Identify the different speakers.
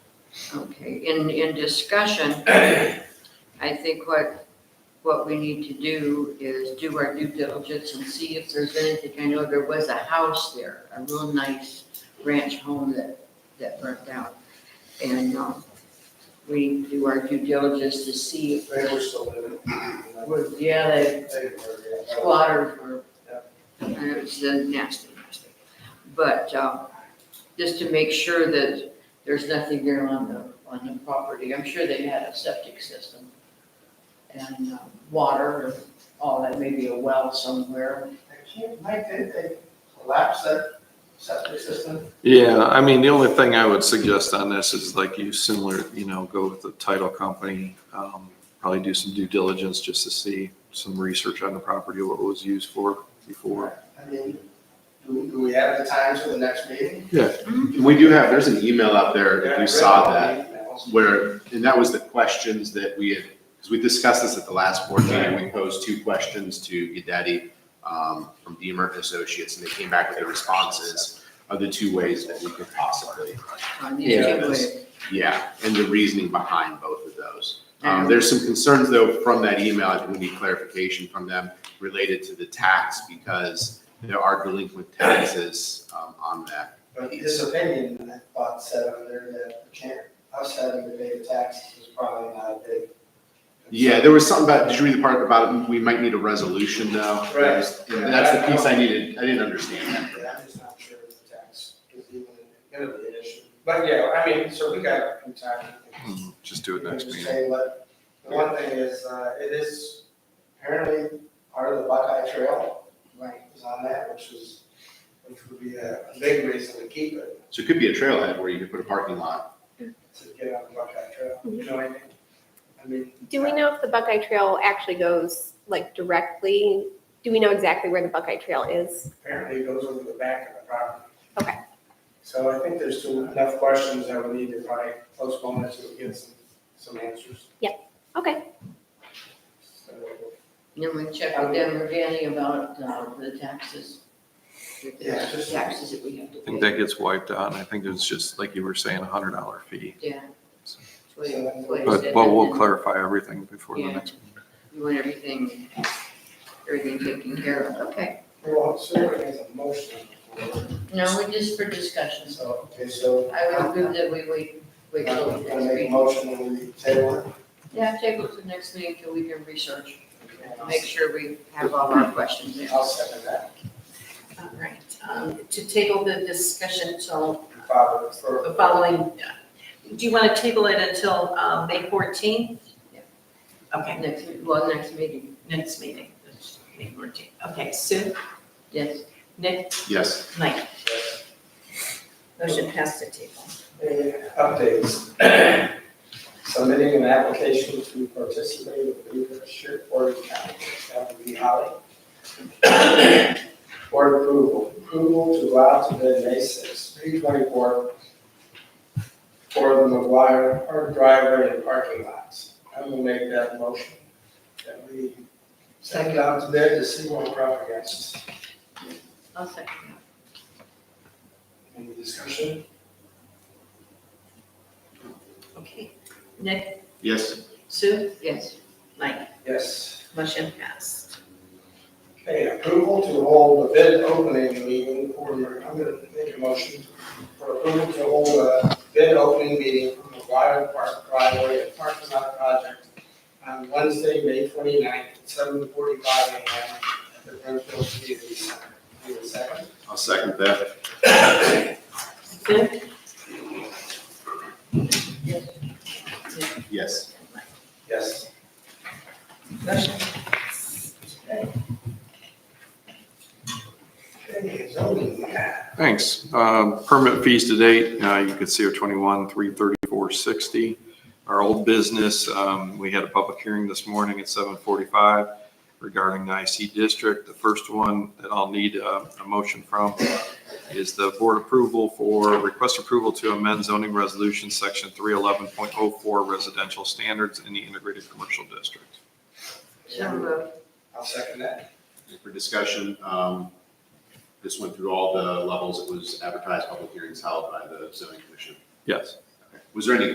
Speaker 1: Okay, in, in discussion, I think what, what we need to do is do our due diligence and see if there's anything. I know there was a house there, a real nice ranch home that, that burnt down. And, um, we do our due diligence to see if
Speaker 2: They were
Speaker 1: there's,
Speaker 2: still living.
Speaker 1: was- yeah, they squatters were, and it was uh, nasty, nasty. But, um, just to make sure that there's nothing there on the, on the property, I'm sure they had a septic system and uh, water, and all that, maybe a well somewhere.
Speaker 2: Mike, did they collapse that septic system?
Speaker 3: Yeah, I mean, the only thing I would suggest on this is like you similar, you know, go with the title company. um, Probably do some due diligence just to see some research on the property, what it was used for before.
Speaker 2: I mean, do, do we have the times for the next meeting?
Speaker 4: We do have, there's an email out there, if you saw that, where, and that was the questions that we had, because we discussed this at the last board meeting, we posed two questions to Gaddetti um, from Deemer and Associates, and they came back with their responses of the two ways that we could possibly,
Speaker 1: on these two
Speaker 4: Yeah.
Speaker 1: ways.
Speaker 4: yeah, and the reasoning behind both of those. Um, There's some concerns, though, from that email, I think we need clarification from them related to the tax, because there are delinquent taxes um, on that.
Speaker 2: But this opinion, I thought said over there that the camp, us having to pay the taxes is probably not a big.
Speaker 4: Yeah, there was something about, did you read the part about we might need a resolution though?
Speaker 2: Right.
Speaker 4: That was- That's the piece I needed, I didn't understand that.
Speaker 2: Yeah, I'm just not sure if the tax is even gonna be an issue. But yeah, I mean, so we got a few time.
Speaker 4: Hmm.
Speaker 3: Mhm, Just do it
Speaker 2: We can
Speaker 3: next
Speaker 2: just
Speaker 3: meeting.
Speaker 2: say what- The one thing is, uh, it is apparently part of the Buckeye Trail,
Speaker 1: Right,
Speaker 2: is on that, which is, which would be a big reason to keep it,
Speaker 4: So it could be a trailhead where you could put a parking lot.
Speaker 2: to get on the Buckeye Trail, you know what I mean? I mean.
Speaker 5: Mm-hmm. Do we know if the Buckeye Trail actually goes like directly? Do we know exactly where the Buckeye Trail is?
Speaker 2: Apparently it goes over the back of the property.
Speaker 5: Okay.
Speaker 2: So I think there's still enough questions that we need to probably postpone this to get some, some answers.
Speaker 5: Okay.
Speaker 2: So,
Speaker 1: and then we check with them or Danny about uh, the taxes. If
Speaker 2: Yeah,
Speaker 1: there's
Speaker 2: just-
Speaker 1: Taxes that we have
Speaker 3: I think
Speaker 1: to pay.
Speaker 3: that gets wiped out, and I think it's just, like you were saying, a hundred dollar fee.
Speaker 1: Yeah. That's what he- that's what he
Speaker 3: But,
Speaker 1: said,
Speaker 3: but
Speaker 1: and
Speaker 3: we'll
Speaker 1: then-
Speaker 3: clarify everything before the
Speaker 1: Yeah.
Speaker 3: next. meeting.
Speaker 1: You want everything, everything taken care of, okay.
Speaker 2: We won't, so we have a motion. before.
Speaker 1: No, we just for discussions.
Speaker 2: So, okay, so.
Speaker 1: I would move that we wait, wait till
Speaker 2: I'm
Speaker 1: the
Speaker 2: gonna
Speaker 1: next
Speaker 2: make a
Speaker 1: meeting.
Speaker 2: motion when we table it.
Speaker 1: Yeah, table to the next meeting till we can research, make sure we have all our questions in.
Speaker 2: I'll second that.
Speaker 6: All right, um, to table the discussion till
Speaker 2: Father, for,
Speaker 6: the following, do you want to table it until um, May 14th?
Speaker 1: Yeah.
Speaker 6: Okay,
Speaker 1: Next, well, next meeting,
Speaker 6: next meeting, that's May 14th. Okay, Sue,
Speaker 1: yes.
Speaker 6: Nick,
Speaker 4: Yes,
Speaker 6: Mike, motion passed to table.
Speaker 2: any Uh, updates? Submitting an application to participate with leadership or county, that would be Holly. Board approval, approval to allow to bid May sixth, three twenty-four for the McGuire Park driveway and parking lots. I will make that motion that we send it out to bid to see what we're up against.
Speaker 1: I'll second
Speaker 2: Any discussion?
Speaker 6: Okay, Nick,
Speaker 4: yes,
Speaker 6: Sue,
Speaker 1: that, yes.
Speaker 6: Mike,
Speaker 2: Yes.
Speaker 6: motion passed.
Speaker 2: Okay, approval to hold a bid opening meeting for, I'm gonna make a motion for approval to hold a bid opening meeting for the Wild Park driveway and parking lot project on Wednesday, May 29th, at seven forty-five AM at the Brimfield Community Center. Need a second?
Speaker 4: I'll second that.
Speaker 6: Sue?
Speaker 1: Yes.
Speaker 6: Nick,
Speaker 4: Yes.
Speaker 6: Mike,
Speaker 2: Yes.
Speaker 6: Motion passed.
Speaker 2: Okay, zoning.
Speaker 3: Thanks. Um, Permit fees to date, uh, you can see are 21, 334.60. Our old business, um, we had a public hearing this morning at 7:45 regarding the IC district. The first one that I'll need uh, a motion from is the board approval for, request approval to amend zoning resolution section 311.04 residential standards in the integrated commercial district.
Speaker 1: So moved.
Speaker 2: I'll second that.
Speaker 4: For discussion, um, this went through all the levels. It was advertised, public hearings held by the zoning commission.
Speaker 3: Yes.
Speaker 4: Was there any